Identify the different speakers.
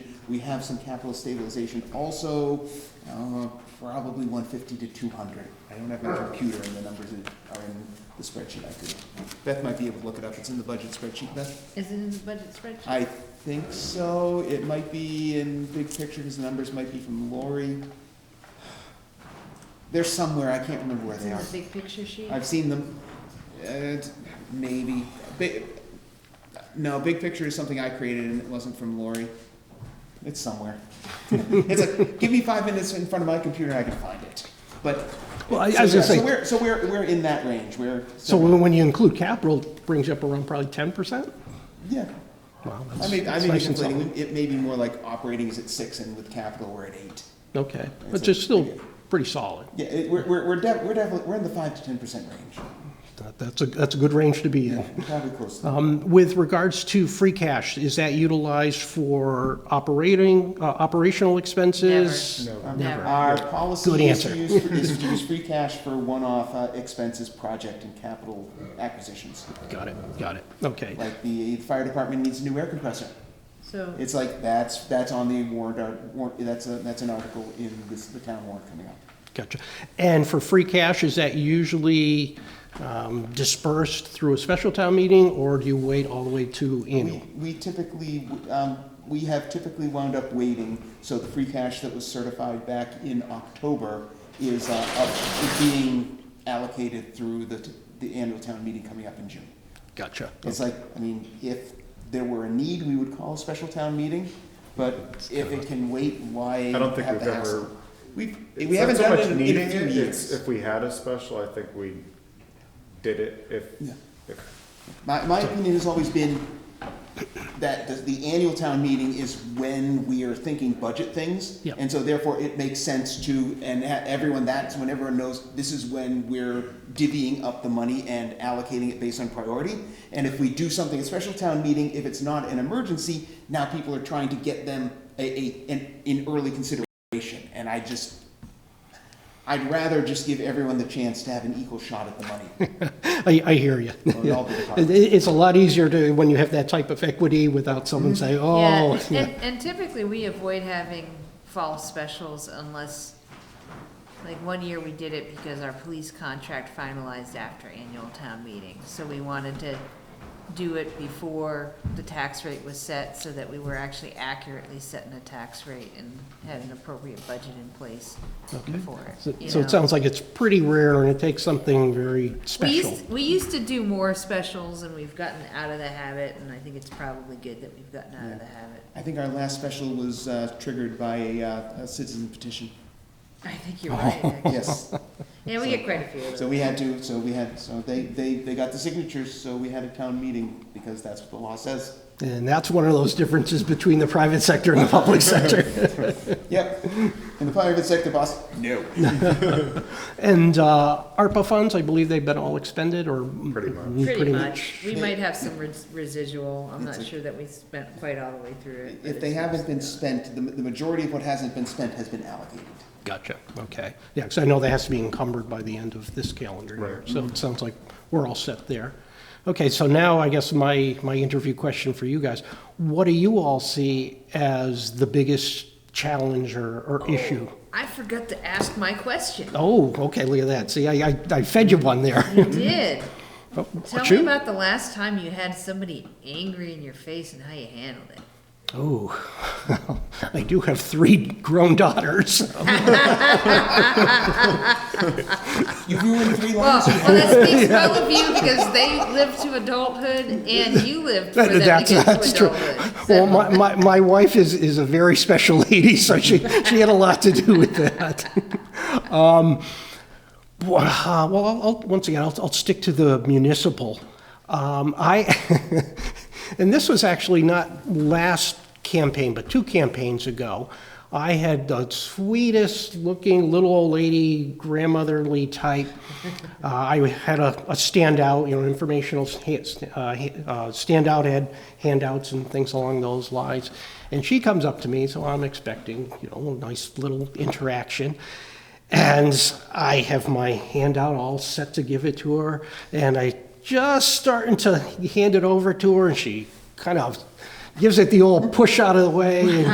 Speaker 1: We have some capital stabilization also, uh, probably one fifty to two hundred. I don't have my computer and the numbers that are in the spreadsheet I could. Beth might be able to look it up. It's in the budget spreadsheet, Beth?
Speaker 2: Is it in the budget spreadsheet?
Speaker 1: I think so. It might be in big picture, because the numbers might be from Lori. They're somewhere, I can't remember where
Speaker 2: It's
Speaker 1: they
Speaker 2: in
Speaker 1: are.
Speaker 2: the big picture sheet?
Speaker 1: I've seen them, uh, maybe. Bi- No, big picture is something I created and it wasn't from Lori. It's somewhere. It's like, give me five minutes in front of my computer, I can find it. But,
Speaker 3: Well, I- I
Speaker 1: so
Speaker 3: was gonna
Speaker 1: yeah, so
Speaker 3: say-
Speaker 1: we're, so we're, we're in that range, we're.
Speaker 3: So when when you include capital, it brings you up around probably ten percent?
Speaker 1: Yeah.
Speaker 3: Wow,
Speaker 1: I
Speaker 3: that's
Speaker 1: mean, I
Speaker 3: that's
Speaker 1: may be
Speaker 3: nice and
Speaker 1: complaining,
Speaker 3: solid.
Speaker 1: it may be more like operating is at six and with capital we're at eight.
Speaker 3: Okay,
Speaker 1: It's
Speaker 3: but
Speaker 1: a-
Speaker 3: it's still pretty solid.
Speaker 1: Yeah, it, we're, we're, we're def- we're definitely, we're in the five to ten percent range,
Speaker 3: That- That's a, that's a good range to be in.
Speaker 1: probably close to.
Speaker 3: Um, With regards to free cash, is that utilized for operating, uh, operational expenses?
Speaker 1: Um,
Speaker 2: Never.
Speaker 1: Our policy
Speaker 3: Good
Speaker 1: is to
Speaker 3: answer.
Speaker 1: use, is to use free cash for one-off uh, expenses, project and capital acquisitions.
Speaker 3: Got it, got it, okay.
Speaker 1: Like the fire department needs a new air compressor.
Speaker 2: So,
Speaker 1: It's like, that's, that's on the warrant, art- warrant, that's a, that's an article in this, the town warrant coming up.
Speaker 3: Gotcha. And for free cash, is that usually um, dispersed through a special town meeting, or do you wait all the way to
Speaker 1: We,
Speaker 3: annual?
Speaker 1: we typically, um, we have typically wound up waiting, so the free cash that was certified back in October is, uh, up, is being allocated through the, t- the annual town meeting coming up in June.
Speaker 3: Gotcha.
Speaker 1: It's like, I mean, if there were a need, we would call a special town meeting, but if it can wait, why
Speaker 4: I don't think
Speaker 1: have the
Speaker 4: we've ever-
Speaker 1: hassle? We've,
Speaker 4: It's
Speaker 1: we
Speaker 4: not
Speaker 1: haven't
Speaker 4: so
Speaker 1: done
Speaker 4: much
Speaker 1: it in- in
Speaker 4: needing
Speaker 1: a few
Speaker 4: it, it's
Speaker 1: years.
Speaker 4: If we had a special, I think we did it if,
Speaker 1: Yeah.
Speaker 4: if,
Speaker 1: My, my opinion has always been that the, the annual town meeting is when we are thinking budget things.
Speaker 3: Yeah.
Speaker 1: And so therefore, it makes sense to, and ha- everyone, that's when everyone knows, this is when we're divvying up the money and allocating it based on priority. And if we do something at special town meeting, if it's not an emergency, now people are trying to get them a, a, an, in early consideration. And I just, I'd rather just give everyone the chance to have an equal shot at the money.
Speaker 3: I, I hear you.
Speaker 1: Or it all be
Speaker 3: It-
Speaker 1: department.
Speaker 3: It's a lot easier to, when you have that type of equity without someone saying,
Speaker 2: Mm-hmm. yeah,
Speaker 3: oh.
Speaker 2: and, and typically we avoid having fall specials unless, like, one year we did it because our police contract finalized after annual town meeting. So we wanted to do it before the tax rate was set so that we were actually accurately setting a tax rate and had an appropriate budget in place for
Speaker 3: So-
Speaker 2: it. you
Speaker 3: So
Speaker 2: know?
Speaker 3: it sounds like it's pretty rare and it takes something very
Speaker 2: We
Speaker 3: special.
Speaker 2: used, we used to do more specials and we've gotten out of the habit and I think it's probably good that we've gotten out of the habit.
Speaker 1: I think our last special was uh, triggered by a, uh, a citizen petition.
Speaker 2: I think you're right, actually.
Speaker 1: Yes.
Speaker 2: Yeah, we get quite a few of
Speaker 1: so
Speaker 2: those.
Speaker 1: we had to. So we had. So they, they they got the signatures. So we had a town meeting because that's what the law says.
Speaker 3: And that's one of those differences between the private sector and the public sector.
Speaker 1: Yep. And the private sector boss. No.
Speaker 3: And uh, ARPA funds, I believe they've been all expended or?
Speaker 4: Pretty much.
Speaker 3: Mm,
Speaker 2: Pretty much. We might have some res- residual. I'm
Speaker 1: It's
Speaker 2: not
Speaker 1: a-
Speaker 2: sure that we spent quite all the way through it. but
Speaker 1: If they
Speaker 2: it's-
Speaker 1: haven't been spent, the, the majority of what hasn't been spent has been allocated.
Speaker 3: Gotcha, okay. Yeah, because I know that has to be encumbered by the end of this calendar year.
Speaker 4: Right.
Speaker 3: So it sounds like we're all set there. Okay, so now I guess my, my interview question for you guys, what do you all see as the biggest challenge or, or issue?
Speaker 2: I forgot to ask my question.
Speaker 3: Oh, okay, look at that. See, I, I, I fed you one there.
Speaker 2: You did.
Speaker 3: Oh,
Speaker 2: Tell me
Speaker 3: shoot.
Speaker 2: about the last time you had somebody angry in your face and how you handled it.
Speaker 3: Oh, I do have three grown daughters.
Speaker 1: You ruined three
Speaker 2: Well,
Speaker 1: lines.
Speaker 2: well, that speaks well of you because they lived to adulthood and you lived for them to get
Speaker 3: That's,
Speaker 2: to
Speaker 3: that's true.
Speaker 2: adulthood. So-
Speaker 3: Well, my, my, my wife is, is a very special lady, so she, she had a lot to do with that. Um, Well, uh, well, I'll, I'll- once again, I'll, I'll stick to the municipal. Um, I, and this was actually not last campaign, but two campaigns ago. I had the sweetest-looking little old lady, grandmotherly type. Uh, I had a, a standout, you know, informational sta- st- uh, ha- uh, standout had handouts and things along those lines. And she comes up to me, so I'm expecting, you know, a nice little interaction. And I have my handout all set to give it to her, and I just starting to hand it over to her, and she kind of gives it the old push out of the way, and